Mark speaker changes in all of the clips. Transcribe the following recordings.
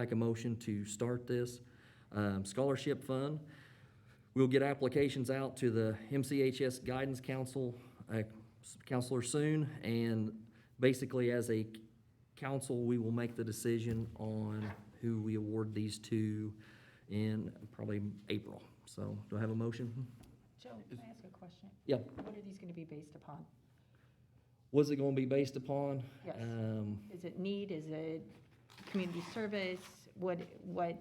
Speaker 1: make a motion to start this. Um, Scholarship Fund, we'll get applications out to the MCHS Guidance Council, uh, s- counselor soon. And basically, as a council, we will make the decision on who we award these to in probably April. So do I have a motion?
Speaker 2: Joe, can I ask a question?
Speaker 1: Um, Yeah.
Speaker 2: What are these gonna be based upon?
Speaker 1: What's it gonna be based upon?
Speaker 2: Yes.
Speaker 1: Um,
Speaker 2: Is it need, is it community service? What, what,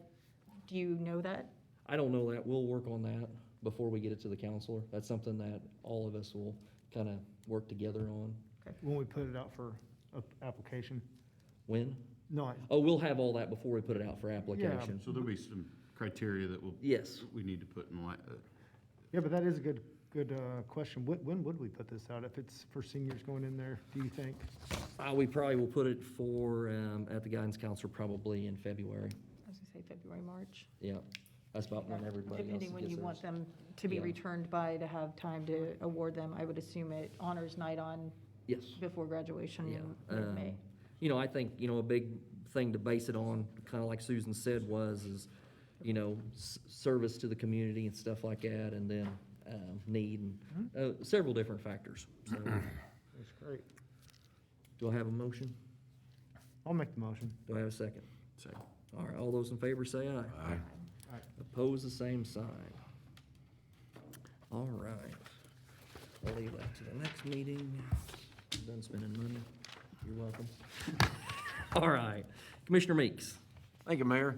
Speaker 2: do you know that?
Speaker 1: I don't know that. We'll work on that before we get it to the counselor. That's something that all of us will kind of work together on.
Speaker 3: When we put it out for a- application,
Speaker 1: When?
Speaker 3: no, I-
Speaker 1: Oh, we'll have all that before we put it out for application.
Speaker 4: So there'll be some criteria that will,
Speaker 1: Yes.
Speaker 4: we need to put in line, uh,
Speaker 3: yeah, but that is a good, good uh, question. When, when would we put this out? If it's for seniors going in there, do you think?
Speaker 1: Uh, we probably will put it for, um, at the guidance council probably in February.
Speaker 2: I was gonna say February, March.
Speaker 1: Yeah, that's about when everybody else
Speaker 2: Depending when
Speaker 1: gets
Speaker 2: you want
Speaker 1: theirs.
Speaker 2: them to be
Speaker 1: Yeah.
Speaker 2: returned by, to have time to award them. I would assume it honors night on
Speaker 1: Yes,
Speaker 2: before graduation
Speaker 1: yeah.
Speaker 2: in mid-May.
Speaker 1: Um, You know, I think, you know, a big thing to base it on, kind of like Susan said, was, is, you know, s- service to the community and stuff like that, and then, um, need and, uh, several different factors. So,
Speaker 3: That's great.
Speaker 1: do I have a motion?
Speaker 3: I'll make the motion.
Speaker 1: Do I have a second?
Speaker 4: say.
Speaker 1: All right, all those in favor say aye.
Speaker 3: Aye.
Speaker 1: Oppose the same sign. All right. I'll leave that to the next meeting. I'm Done spending money. You're welcome. All right. Commissioner Meeks.
Speaker 5: Thank you, Mayor.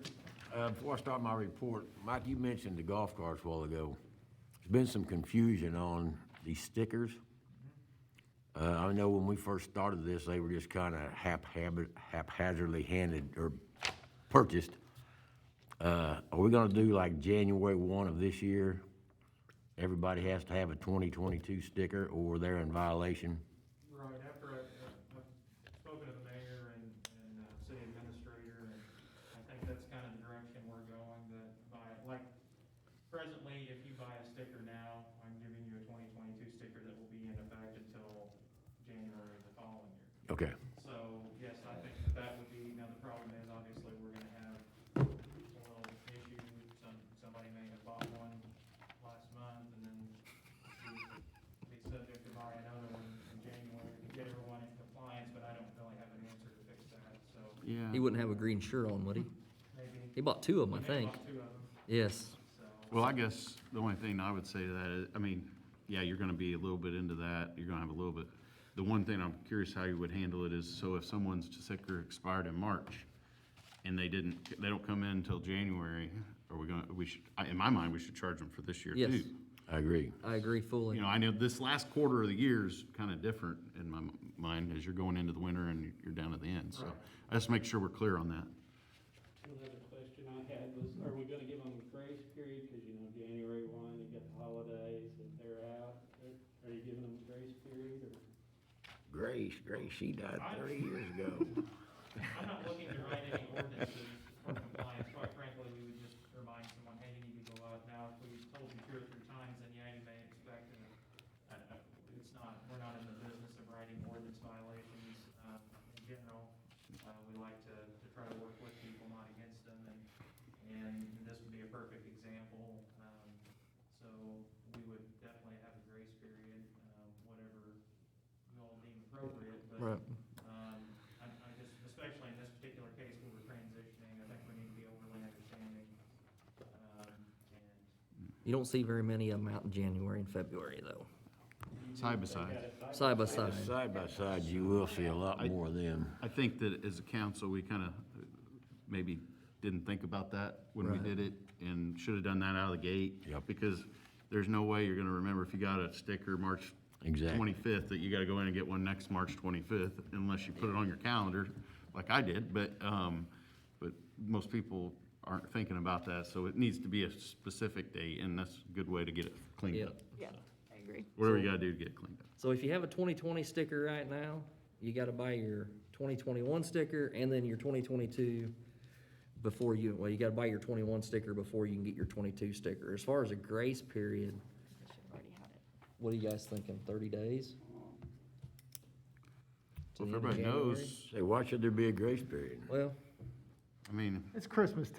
Speaker 5: Uh, Before I start my report, Mike, you mentioned the golf carts a while ago. There's been some confusion on these stickers. Uh, I know when we first started this, they were just kind of haphazardly handed or purchased. Uh, Are we gonna do like January one of this year? Everybody has to have a twenty twenty-two sticker or they're in violation?
Speaker 6: Right, after I, I- I've spoken to the mayor and, and uh, city administrator, and I think that's kind of the direction we're going, that by, like, presently, if you buy a sticker now, I'm giving you a twenty twenty-two sticker that will be in effect until January of the following year.
Speaker 5: Okay.
Speaker 6: So, yes, I think that that would be, now the problem is, obviously, we're gonna have a little issue, some, somebody may have bought one last month, and then we'd be subject to buy another one in January to get everyone in compliance, but I don't really have an answer to fix that, so
Speaker 4: Yeah.
Speaker 1: He wouldn't have a green shirt on, would he?
Speaker 6: maybe.
Speaker 1: He bought two of them, I
Speaker 6: maybe
Speaker 1: think.
Speaker 6: bought Two of them,
Speaker 1: Yes.
Speaker 6: so.
Speaker 4: Well, I guess the only thing I would say to that is, I mean, yeah, you're gonna be a little bit into that, you're gonna have a little bit. The one thing I'm curious how you would handle it is, so if someone's sticker expired in March and they didn't, they don't come in until January, are we gonna, we should, I- in my mind, we should charge them for this year too.
Speaker 1: Yes.
Speaker 5: I agree.
Speaker 1: I agree fully.
Speaker 4: You know, I know this last quarter of the year's kind of different in my m- mind as you're going into the winter and you're down at the end, so. I just make sure we're clear on that.
Speaker 7: Another question I had was, are we gonna give them a grace period, cause you know, January one, you got the holidays, and they're out, are are you giving them a grace period, or?
Speaker 5: Grace, Grace, she died thirty years ago.
Speaker 6: I'm not looking to write any ordinances for compliance, quite frankly, we would just remind someone, hey, you need to go out now, if we told you two or three times, then yeah, you may expect, and, I don't know, it's not, we're not in the business of writing ordinance violations, um, in general, uh, we like to, to try to work with people, not against them, and, and this would be a perfect example, um, so we would definitely have a grace period, um, whatever you all deem appropriate, but
Speaker 1: Right.
Speaker 6: um, I, I just, especially in this particular case where we're transitioning, I think we need to be overly understanding. Um, and
Speaker 1: You don't see very many of them out in January and February, though.
Speaker 4: Side by side.
Speaker 1: Side by side.
Speaker 5: Side by side, you will see a lot more of them.
Speaker 4: I think that as a council, we kind of maybe didn't think about that when we
Speaker 1: Right.
Speaker 4: did it and should have done that out of the gate.
Speaker 5: Yep.
Speaker 4: Because there's no way you're going to remember if you got a sticker March
Speaker 5: Exactly.
Speaker 4: 25th that you got to go in and get one next March 25th unless you put it on your calendar like I did. But, um, but most people aren't thinking about that. So it needs to be a specific date and that's a good way to get it cleaned
Speaker 1: Yeah.
Speaker 4: up.
Speaker 2: Yeah, I agree.
Speaker 4: Whatever you got to do to get it cleaned up.
Speaker 1: So if you have a twenty twenty sticker right now, you gotta buy your twenty twenty-one sticker and then your twenty twenty-two before you, well, you gotta buy your twenty-one sticker before you can get your twenty-two sticker. As far as a grace period,
Speaker 2: I should have already had it.
Speaker 1: what are you guys thinking, thirty days? To
Speaker 4: Well,
Speaker 1: the end of
Speaker 4: if everybody
Speaker 1: January?
Speaker 4: knows,
Speaker 5: Say, why should there be a grace period?
Speaker 1: Well,
Speaker 4: I mean.
Speaker 3: It's Christmas time.